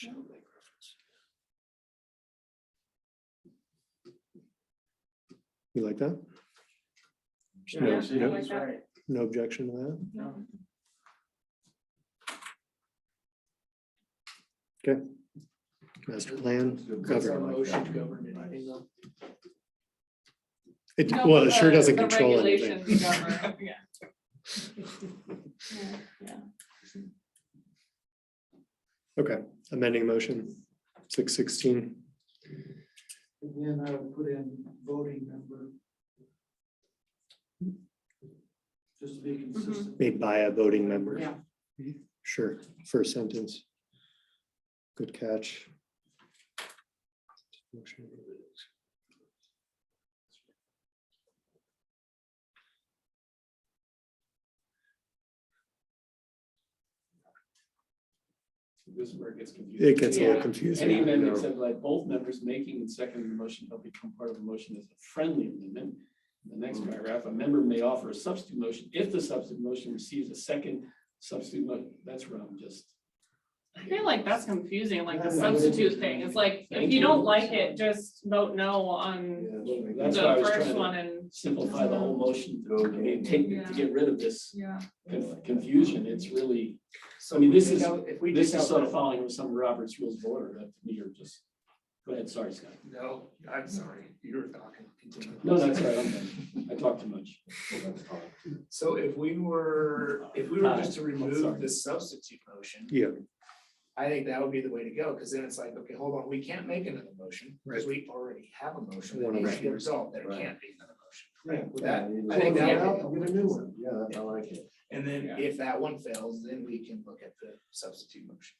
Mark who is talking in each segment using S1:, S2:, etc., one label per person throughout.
S1: Shall make reference.
S2: You like that?
S1: Yeah,
S2: No-
S1: see,
S2: no-
S1: he's right.
S2: No objection to that?
S1: No.
S2: Master plan?
S1: It's a
S2: government.
S1: motion to govern anything, though.
S2: It, well,
S3: uh,
S2: it sure doesn't
S3: The
S2: control anything.
S3: regulations govern, yeah. Yeah,
S2: Okay, amending motion six sixteen.
S1: And then I would put in voting member. Just to be
S3: Mm-hmm.
S1: consistent.
S2: Made by a voting member.
S3: Yeah.
S2: Sure, first sentence. Good catch.
S4: This is where it gets confusing.
S2: It gets a little
S3: Yeah.
S4: Any
S2: confusing.
S4: amendment except by both members making and seconding the motion shall become part of the motion as a friendly amendment. The next
S2: Mm.
S4: paragraph, a member may offer a substitute motion if the substitute motion receives a second substitute motion. That's where I'm just.
S3: I feel like that's confusing, like the
S1: That's not-
S3: substitute thing, it's like, if
S4: Thank
S3: you
S4: you.
S3: don't like it, just vote no on the
S4: That's why I was
S3: first
S4: trying to
S3: one and.
S4: simplify the whole motion to, I mean, take, to get rid of this
S3: Yeah.
S4: conf- confusion. It's really,
S1: So
S4: I mean,
S1: if we
S4: this
S1: take
S4: is-
S1: out- If we
S4: this
S1: take
S4: is
S1: out
S4: sort
S1: that-
S4: of following some Robert's rules of order. That to me are just, go ahead, sorry, Scott.
S1: No, I'm sorry, you were talking. Continue.
S4: No, that's right. I'm done. I talked too much.
S1: So if we were, if we were just to remove
S4: sorry.
S1: this substitute motion,
S2: Yeah,
S1: I think that would be the way to go, because then it's like, okay, hold on, we can't make another motion, because we already have a motion that
S2: One
S1: needs to get
S2: motion.
S1: resolved, there
S4: Right.
S1: can't be another motion.
S4: Right.
S1: With that,
S4: Yeah,
S1: I think
S4: yeah,
S1: that.
S4: I'll
S1: get a new one.
S4: Yeah, I like it.
S1: And then
S4: Yeah.
S1: if that one fails, then we can look at the substitute motion.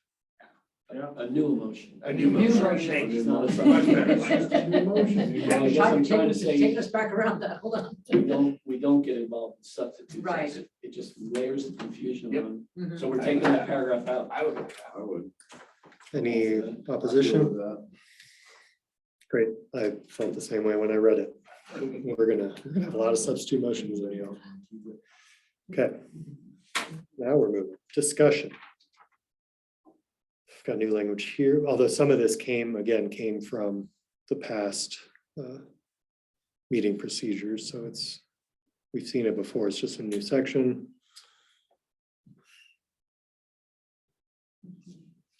S4: A new emotion.
S1: A new motion. Thank you.
S4: It's not a
S1: Much better.
S4: substitute. Well, I guess I'm trying to say-
S5: Take us back around that, hold on.
S4: We don't, we don't get involved in substitutes.
S5: Right.
S4: It- It just layers the confusion
S1: Yep.
S4: on.
S5: Mhm.
S4: So we're taking that paragraph out.
S1: I would.
S6: I would.
S2: any
S6: Deal
S2: opposition?
S6: with that.
S2: Great, I felt the same way when I read it.
S1: Okay.
S2: We're gonna, we're gonna have a lot of substitute motions. anyhow. Okay. Now we're moving, discussion. I've Got new language here, although some of this came, again, came from the past uh, meeting procedures, so it's, we've seen it before, it's just a new section.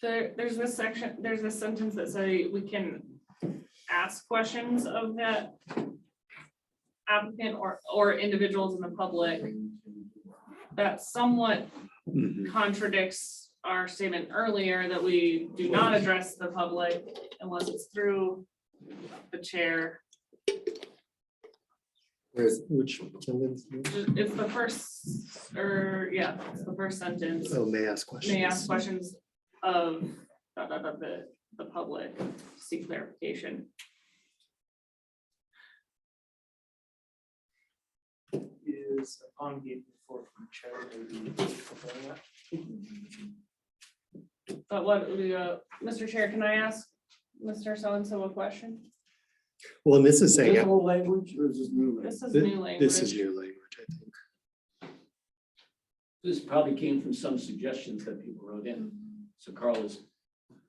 S3: There, there's this section, there's this sentence that say we can ask questions of that applicant or, or individuals in the public. That somewhat Mm-hmm. contradicts our statement earlier that we do not address the public unless it's through the chair.
S2: Where's, which, sentence?
S3: It's the first, or, yeah, it's the first sentence.
S2: oh, may ask questions.
S3: May ask questions of, da, da, da, the, the public, seek clarification.
S1: Is upon getting before from chair. maybe fulfilling that?
S3: But what, uh, Mr. Chair, can I ask Mr. So-and-so a question?
S2: Well, and this is
S4: Is
S2: saying,
S4: this
S2: uh,
S4: old language or is this new? language?
S3: This is
S2: Thi-
S3: new language.
S2: this is your language, I think.
S4: This probably came from some suggestions that people wrote in. So Carl has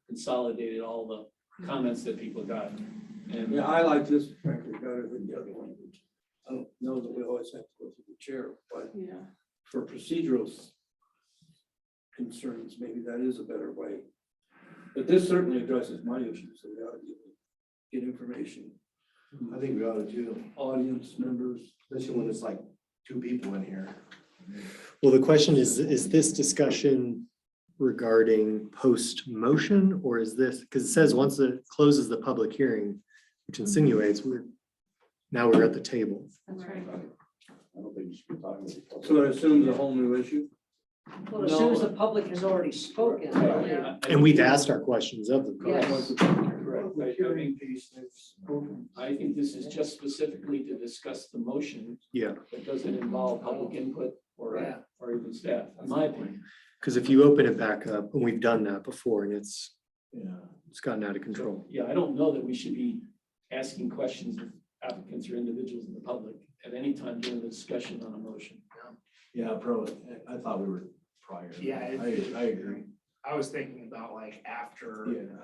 S4: consolidated all the comments that people got. And
S7: Yeah, I like this record better than the other one. I don't know that we always have to go through the chair, but
S3: Yeah.
S7: for procedural s- concerns, maybe that is a better way. But this certainly addresses my issues, so we ought to get information,
S6: I think we ought to do,
S7: audience members.
S6: especially when it's like two people in here.
S2: Well, the question is, is this discussion regarding post-motion or is this, because it says once it closes the public hearing, which insinuates we're, now we're at the table.
S3: That's right.
S6: I don't think you should be talking. to people.
S7: So that assumes a whole new issue.
S5: Well, as soon as the public has already spoken,
S3: Yeah.
S4: I- I-
S2: And we've asked our questions of them.
S5: Yes.
S4: Correct. I- I mean, I think this is just specifically to discuss the motion
S2: Yeah,
S4: that doesn't involve public input or,
S1: Yeah.
S4: or even staff, in my opinion.
S2: because if you open it back up, and we've done that before and it's,
S6: Yeah.
S2: it's gotten out of control.
S4: Yeah, I don't know that we should be asking questions of applicants or individuals in the public at any time during the discussion on a motion.
S6: Yeah, probably. I I thought we were prior.
S1: Yeah, it-
S6: I, I agree.
S1: I was thinking about like after.
S7: Yeah.